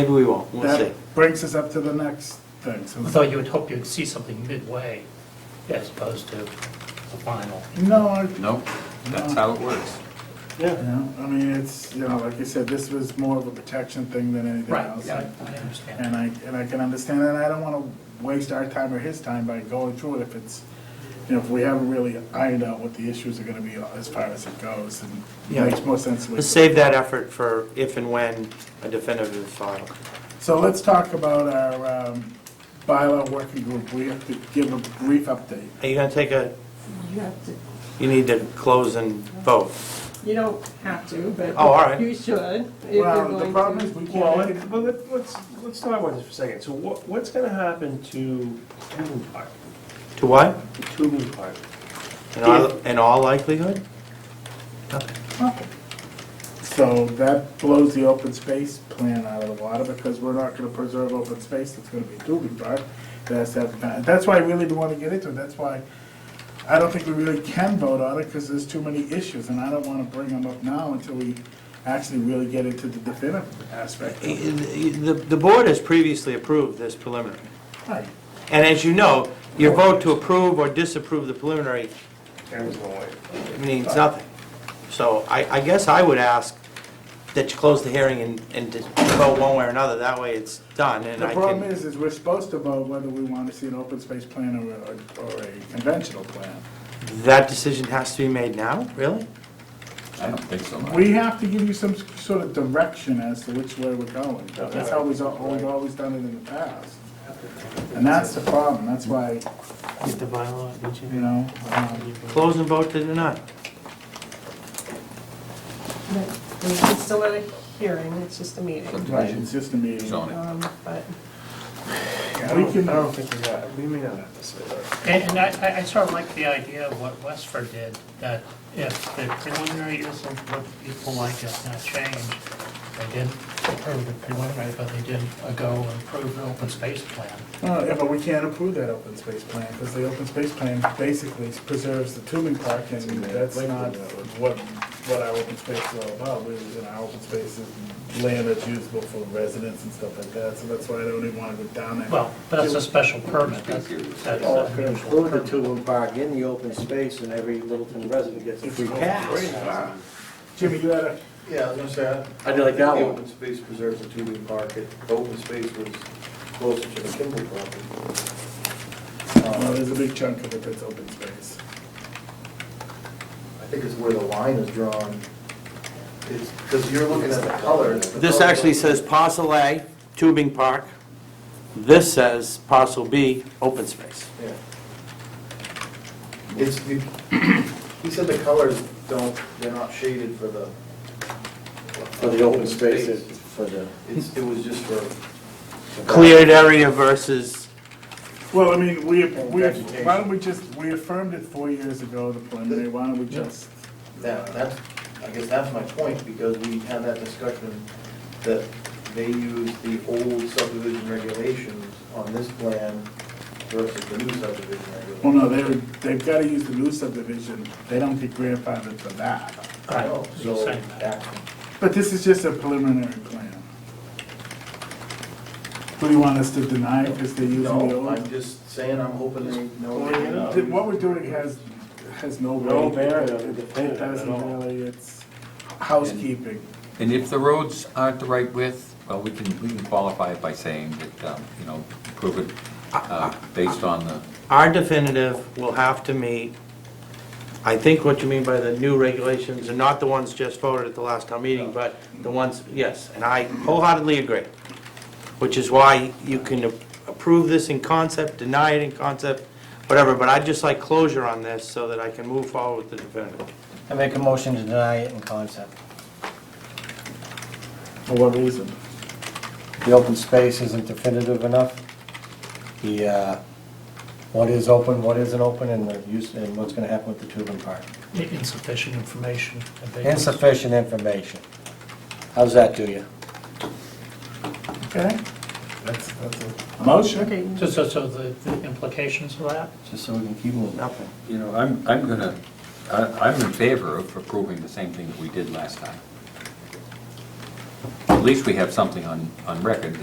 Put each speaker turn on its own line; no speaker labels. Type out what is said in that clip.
Maybe we won't, we'll see.
That brings us up to the next thing. So-
Although you would hope you'd see something midway as opposed to the final.
No, I,
Nope, that's how it works.
you know, I mean, it's, you know, like you said, this was more of a protection thing than anything
Right,
else.
yeah, I understand.
And I, and I can understand that, and I don't wanna waste our time or his time by going through it if it's, you know, if we haven't really ironed out what the issues are gonna be as far as it goes, and it
Yeah.
makes more sense. we-
Let's save that effort for if and when a definitive is filed.
So let's talk about our, um, bylaw working group, we have to give a brief update.
Are you gonna take a,
You have to,
you need to close and vote?
you don't have to, but.
Oh, all right.
You should, if you're
Well,
going
the
to.
problem is we can't
Well,
make
it-
it,
but let- let's, let's talk about this for a second. So what, what's gonna happen to Tubman Park?
To what?
To Tubman Park?
In all, in all likelihood? Nothing.
so that blows the open space plan out of the water, because we're not gonna preserve open space, that's gonna be Dugan Park. That's, that- that's why I really don't wanna get into it, that's why I don't think we really can vote on it, because there's too many issues, and I don't wanna bring them up now until we actually really get into the definitive aspect. of it.
Eh, The, the board has previously approved this preliminary.
Right.
And as you know, your vote to approve or disapprove the preliminary
There's no way.
means nothing. So I, I guess I would ask that you close the hearing and, and just vote one way or another, that way it's done, and
The
I
problem
can...
is, is we're supposed to vote whether we wanna see an open space plan or, a- or a conventional plan.
That decision has to be made now, really?
I don't think so, Mark.
We have to give you some sort of direction as to which way we're going. That's how we've al- we've always done it in the past. And that's the problem, that's why,
Get the bylaw, did
you know, um,
Close and vote to deny.
It's still not a hearing, it's just a meeting,
Subdivision,
it's just a meeting.
zoning.
um, but.
We can,
think we got, we may not have to say that.
And and I- I, I sort of like the idea of what Westford did, that if the preliminary isn't what people like, it's not changed. They didn't approve the preliminary, but they did go and approve the open space plan.
uh, yeah, but we can't approve that open space plan, because the open space plan basically preserves the tubing park, and that's not what, what our open space is all about. We, you know, our open space is land that's usable for residents and stuff like that, so that's why I don't even wanna go down that.
Well, but that's a special permit, that's, that's
Or
Oh,
an
if you
unusual
include the
permit.
Tubman Park in the open space, and every Littleton resident gets a free pass.
Jimmy, you had a
Yeah, I was gonna say.
I did like that
The
one.
open space preserves the two-week market, the open space was closer to the Kimball property. Uh,
Well, uh, there's a big chunk of it that's open space.
I think it's where the line is drawn, it's, because you're looking at the color. the
This
color-
actually says parcel A, tubing park. This says parcel B, open space.
Yeah. It's, you- he said the colors don't, they're not shaded for the.
For the open spaces, for the,
It's, it was just for.
Cleared area versus,
Well, I mean, we, we,
vegetation.
why don't we just, we affirmed it four years ago, the preliminary, why don't we just?
That, that's, I guess that's my point, because we had that discussion that they use the old subdivision regulations on this plan versus the new subdivision
Well,
regulations.
no, they, they've gotta use the new subdivision, they don't get grandfathered for that.
I know,
You're
Oh, So,
saying that.
that-
But this is just a preliminary plan. What do you want us to deny because they're using the
no, I'm
old?
just saying, I'm hoping they
Well, you
know.
know.
Th- What we're doing has, has no.
No
weight.
bearing on the plan
It
at all.
doesn't really, it's housekeeping.
And if the roads aren't the right width, well, we can, we can qualify it by saying that, um, you know, prove it uh, based on the,
our definitive will have to meet, I think what you mean by the new regulations, and not the ones just voted at the last town meeting, but the ones, yes, and I wholeheartedly agree. Which is why you can approve this in concept, deny it in concept, whatever, but I'd just like closure on this so that I can move forward with the definitive.
I make a motion to deny it in concept.
For what reason?
The open space isn't definitive enough. The, uh, what is open, what isn't open, and the use, and what's gonna happen with the Tubman Park.
Insufficient information.
Insufficient information. How's that do you?
Okay? That's, that's a motion.
Okay,
So, so, so the the implications of that?
Just so we can keep moving.
Nothing.
you know, I'm, I'm gonna, I- I'm in favor of approving the same thing that we did last time. at least we have something on, on record